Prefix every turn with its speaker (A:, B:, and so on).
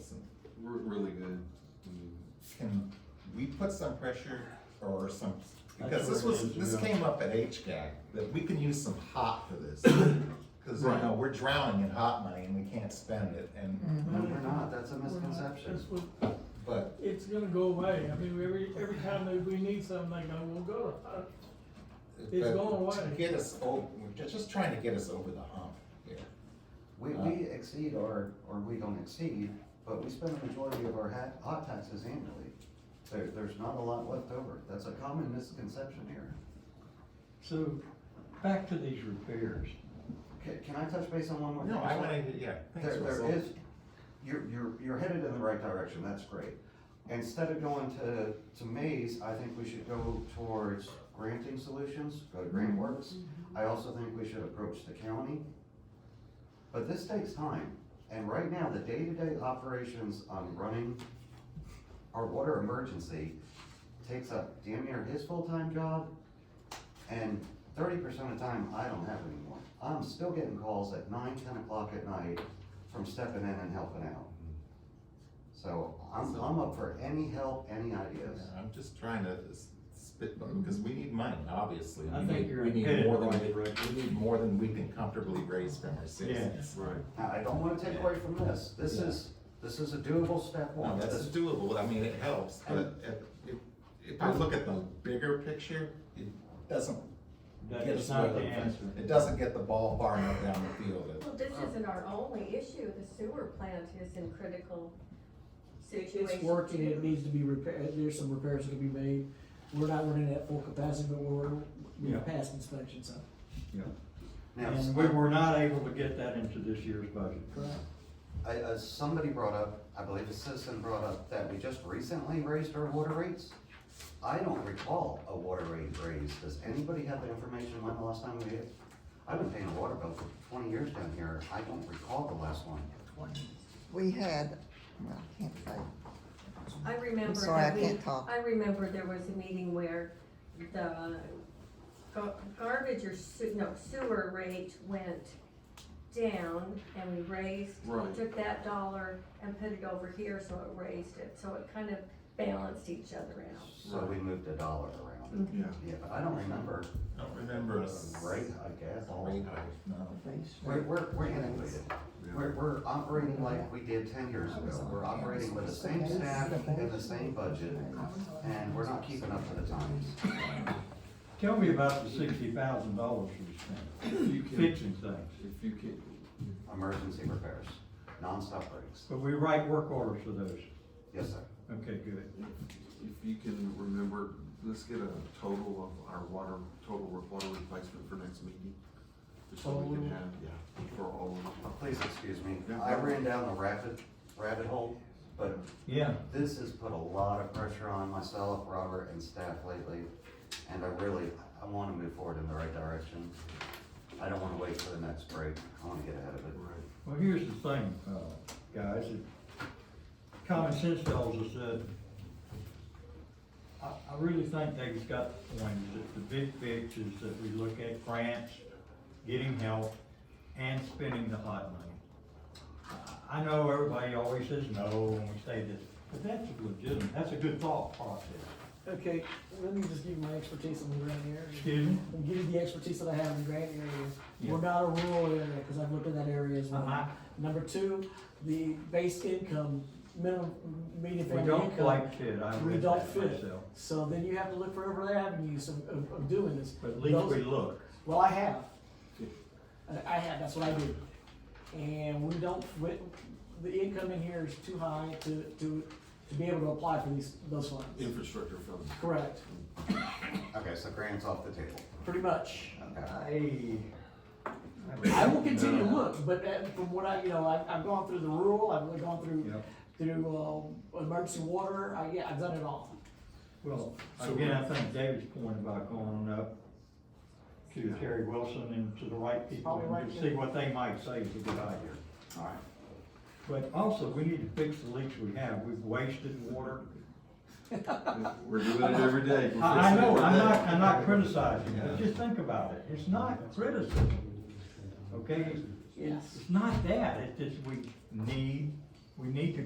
A: some,
B: We're really good.
A: can we put some pressure or some, because this
C: That's what
A: was,
C: we're
A: this
C: gonna do.
A: came up at HGAC, that we can use some hot for this. Cause you
C: Right.
A: know, we're drowning in hot money and we can't spend it and,
D: Mhm.
E: No,
F: Mm-hmm.
E: we're not, that's a
F: We're not-
E: misconception.
F: that's what-
A: but,
F: It's gonna go away. I mean, every, every time that we need something, they go, we'll go to, uh, It's
A: but
F: going
A: to
F: away.
A: get us over, we're ju- just trying to get us over the hump here.
E: We, we exceed or, or we don't exceed, but we spend the majority of our hat, hot taxes annually. There, there's not a lot left over. That's a common misconception here.
C: So, back to these repairs.
E: Can, can I touch base on one more?
A: No,
E: thing?
A: I wanna, yeah. thanks,
E: There,
A: Russell.
E: there is, you're, you're, you're headed in the right direction, that's great. Instead of going to, to Maze, I think we should go towards granting solutions, go to Grant Works. I also think we should approach the county. But this takes time, and right now, the day-to-day operations on running our water emergency takes up damn near his full-time job, and thirty percent of the time, I don't have anymore. I'm still getting calls at nine, ten o'clock at night from stepping in and helping out. So I'm, I'm up for any help, any ideas.
A: Yeah, I'm just trying to s- spitball, because we need money, obviously.
C: I
A: We
C: think
A: need-
C: you're
A: We need
C: headed
A: more than,
C: in the
A: we-
C: right direction.
A: we need more than we can comfortably raise from our citizens.
C: right.
E: Now, I don't wanna take away from this, this is, this is a doable step
A: No,
E: one.
A: that's
E: This-
A: doable, I mean, it helps, but if, if, if I look at the bigger picture, it doesn't
C: That
A: get
C: is
A: us
C: not
A: where
C: the
A: the,
C: answer.
A: it doesn't get the ball far enough down the field.
G: Well, this
D: Um,
G: isn't our only issue, the sewer plant is in critical situation.
D: It's working, it
G: too.
D: needs to be repaired, there's some repairs that can be made. We're not running at full capacity, but we're,
C: Yeah.
D: we're past inspection, so.
E: Now,
C: And we were not able to get that into this year's budget.
D: Correct.
E: I, uh, somebody brought up, I believe a citizen brought up that we just recently raised our water rates. I don't recall a water rate raise. Does anybody have the information when the last time we did? I've been paying a water bill for twenty years down here. I don't recall the last one.
H: We had, well, I can't say,
G: I remember
H: sorry,
G: that
H: I
G: we-
H: can't talk.
G: I remember there was a meeting where the gar- garbage or sewer, no, sewer rate went down and we raised,
B: Right.
G: took that dollar and put it over here, so it raised it, so it kind of balanced each other out.
E: So we moved a dollar around.
B: Yeah.
E: Yeah, but I don't remember
A: I don't remember
E: a
A: a s-
E: rate hike at all.
A: rate hike, no.
E: We're, we're, we're innovative. We're, we're operating like we did ten years ago. We're operating with the same staff and the same budget, and we're not keeping up to the times.
C: Tell me about the sixty thousand dollars we spent
B: If you can,
C: fixing things.
B: if you can,
E: Emergency repairs, nonstop breaks.
C: But we write work orders for those.
E: Yes, sir.
C: Okay, good.
B: if you can remember, let's get a total of our water, total water replacement for next meeting. Just so we can
D: Total.
B: have, yeah, for all of them.
E: Please excuse me. I ran down the rabbit, rabbit hole, but
C: Yeah,
E: this has put a lot of pressure on myself, Robert, and staff lately. And I really, I wanna move forward in the right direction. I don't wanna wait for the next break. I wanna get ahead of it.
B: Right.
C: well, here's the thing, uh, guys, it- common sense tells us that I, I really think David's got the point, is that the big fix is that we look at grants, getting help, and spending the hot money. I- I know everybody always says no when we say this, but that's a legitimate, that's a good thought process.
D: Okay, let me just give you my expertise on the grant area.
C: Excuse me?
D: I'll give you the expertise that I have in the grant area.
C: Yeah.
D: We're not a rural area, because I've looked at that area as well.
C: Uh-huh.
D: Number two, the base income, minimum, median
C: We
D: family income.
C: don't like fit, I
D: We
C: read
D: don't
C: that
D: fit.
C: myself,
D: So then you have to look for other avenues of, of, of doing this.
C: but at least we
D: Those-
C: look.
D: Well, I have. I- I have, that's what I do. And we don't, we- the income in here is too high to, to, to be able to apply for these, those funds.
B: Infrastructure funds.
D: Correct,
E: Okay, so grants off the table.
D: pretty much.
E: Okay.
C: I.
D: I will continue to look, but uh, from what I, you know, I've, I've gone through the rural, I've gone through,
C: Yep.
D: through, um, emergency water, I, yeah, I've done it all.
C: Well, again, I think David's point about going up to Terry Wilson and to the right people
D: Probably right
C: and to see what they might say is a good idea.
E: All right.
C: But also, we need to fix the leaks we have. We've wasted water.
B: We're doing it every day. We're
C: I, I
B: fixing it
C: know,
B: every
C: I'm
B: day.
C: not, I'm not criticizing, but just think about it. It's not criticism. Okay?
D: Yes.
C: It's not that. It's just we need, we need to